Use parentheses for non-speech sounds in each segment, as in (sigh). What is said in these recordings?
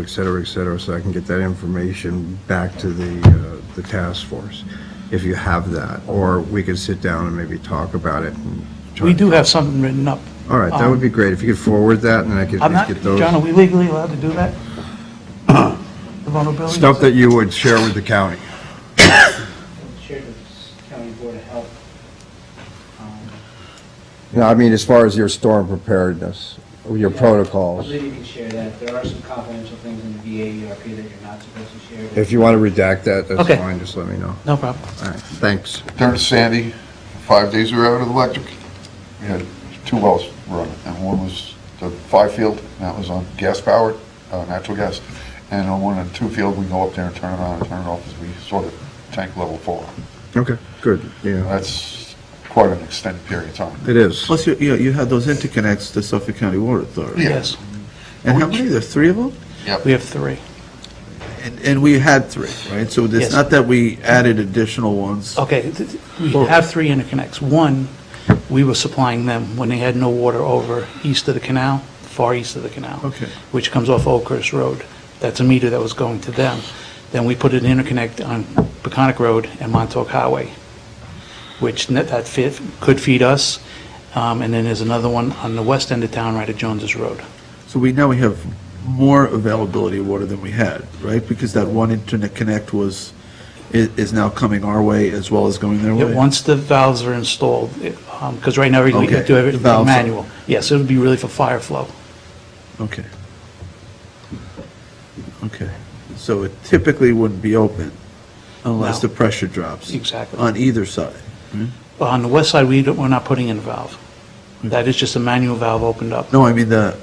et cetera, et cetera, so I can get that information back to the, uh, the task force, if you have that, or we could sit down and maybe talk about it. and try We to- do have something written up. All right, that would be great, if you could forward that, and I could I'm at not, least get those. John, are we legally allowed to (clears throat) do that? The vulnerability? Stuff that you would share with the county. shared with the county board of health. Um, No, I mean, as far as your storm preparedness, your yeah, I protocols, believe you can share that. There are some confidential things in the VA ERP that you're not supposed to share. if you want to redact that, that's Okay. fine, just let me know. No problem. All right, thanks. During Sandy, five days we were out of electric. We had two wells running, and one was the five field, and that was on gas powered, uh, natural gas. And on one and two field, we go up there and turn it on and turn it off as we saw the tank level fall. Okay, good, yeah, That's quite an extended period of time. it is. Plus, you, you, you have those interconnects to Suffolk County Water Authority. Yeah. Yes, And how many, there's three of them? Yep. we have three. And, and we had three, right? So Yes. it's not that we added additional ones. Okay, th- th- we have three interconnects. One, we were supplying them when they had no water over east of the canal, far east of the canal. Okay. Which comes off Oakhurst Road. That's a meter that was going to them. Then we put an interconnect on Peconic Road and Montauk Highway, which net- that fit, could feed us. Um, And then there's another one on the west end of town, right at Jones's Road. So we, now we have more availability of water than we had, right? Because that one interconnect was, is, is now coming our way as well as going their Yeah, way. Once the valves are installed, because right now we we Okay, do the everything valves are- manual. Yes, it would be really for fire flow. Okay. Okay. So it typically wouldn't be open unless No. the pressure drops. Exactly. On either side. Well, On the west side, we don't, we're not putting in a valve. That is just a manual valve opened up. No, I mean the,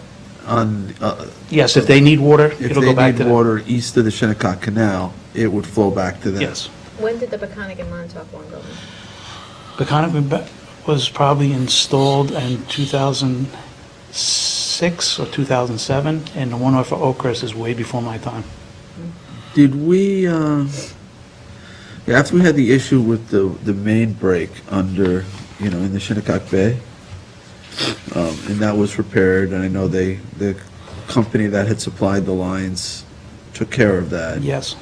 on, uh, Yes, if they need water, if it'll they go back to need them. water east of the Shinnecock Canal, it would flow back to them. Yes. When did the Peconic and Montauk one go in? Peconic was probably installed in 2006 or 2007, and the one off of Oakhurst is way before my time. Did we, uh, yeah, after we had the issue with the, the main break under, you know, in the Shinnecock Bay, um, and that was repaired, and I know they, the company that had supplied the lines took care of that. Yes.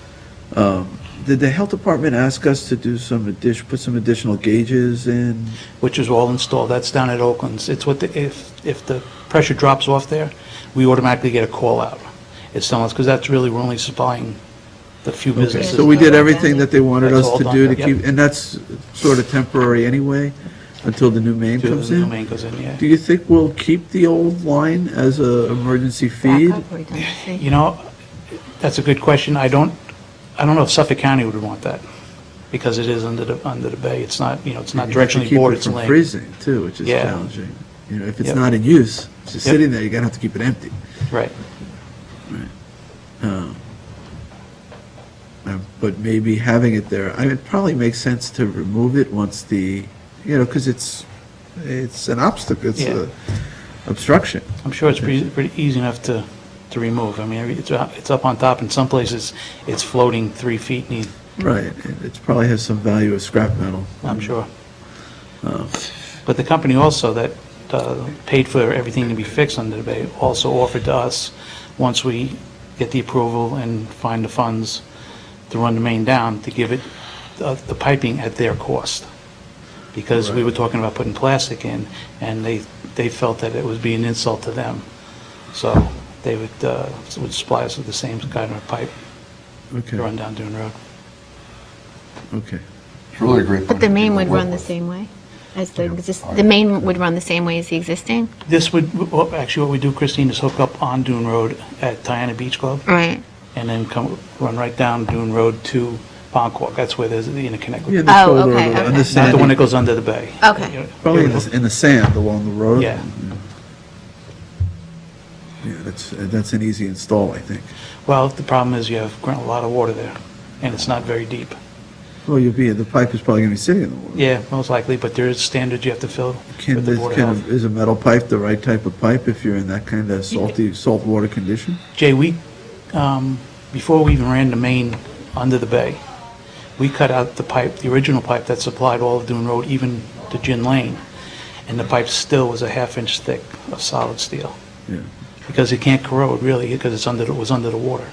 Did the health department ask us to do some addition, put some additional gauges in? which is all installed. That's down at Oakland's. It's what, the if, if the pressure drops off there, we automatically get a call out. It's telling us, because that's really, we're only supplying the few Okay, businesses. so we did done. everything that they wanted That's us all to done, do to yep. keep, and that's sort of temporary anyway, until the new main Two comes the in? main goes in, yeah. Do you think we'll keep the old line as a emergency feed? Backup or redundancy? You know, that's a good question. I don't, I don't know if Suffolk County would want that, because it is under the, under the bay. It's not, you know, it's not You have to directionally keep bored, it it's from laying. Freezing too, which is Yeah. challenging. You know, if it's Yep. not in use, it's just Yep. sitting there, you're gonna have to keep it empty. Right. Um, But maybe having it there, I mean, it probably makes sense to remove it once the, you know, because it's, it's an obstacle, it's Yeah. a obstruction. I'm sure it's pretty, pretty easy enough to, to remove. I mean, it's, it's up on top. In some places, it's floating three feet, and Right, and it probably has some value as scrap metal. I'm sure. But the company also that uh, paid for everything to be fixed under the bay also offered to us, once we get the approval and find the funds to run the main down, to give it uh, the piping at their cost. Because we were talking about putting plastic in, and they, they felt that it would be an insult to them. So they would, uh, would supply us with the same kind of pipe to run Okay, down Dune Road. okay. It's really a great. But the company main to would work run the with. same way as the exist, the main would run the same way as the existing? This would, well, actually, what we do, Christine, is hook up on Dune Road at Diana Beach Club, Right. and then come, run right down Dune Road to Bonquok. That's where there's the interconnect. Yeah, with- the Oh, shoulder okay, of the- okay. on Not the the Not one sand, that goes under the bay. Okay. You know, Probably in the, in the sand along the road. Yeah. Yeah, that's, that's an easy install, I think. Well, the problem is you have gr- a lot of water there, and it's not very deep. Well, you'll be, the pipe is probably going to be sitting in the water. Yeah, most likely, but there is standards you have to fill Can with the this, Board of can, Health. is a metal pipe the right type of pipe if you're in that kind of salty, salt water condition? Jay, we, um, before we even ran the main under the bay, we cut out the pipe, the original pipe that supplied all of Dune Road, even to Gin Lane, and the pipe still was a half inch thick of solid steel. Yeah. because it can't corrode really, because it's under, the- it was under the water.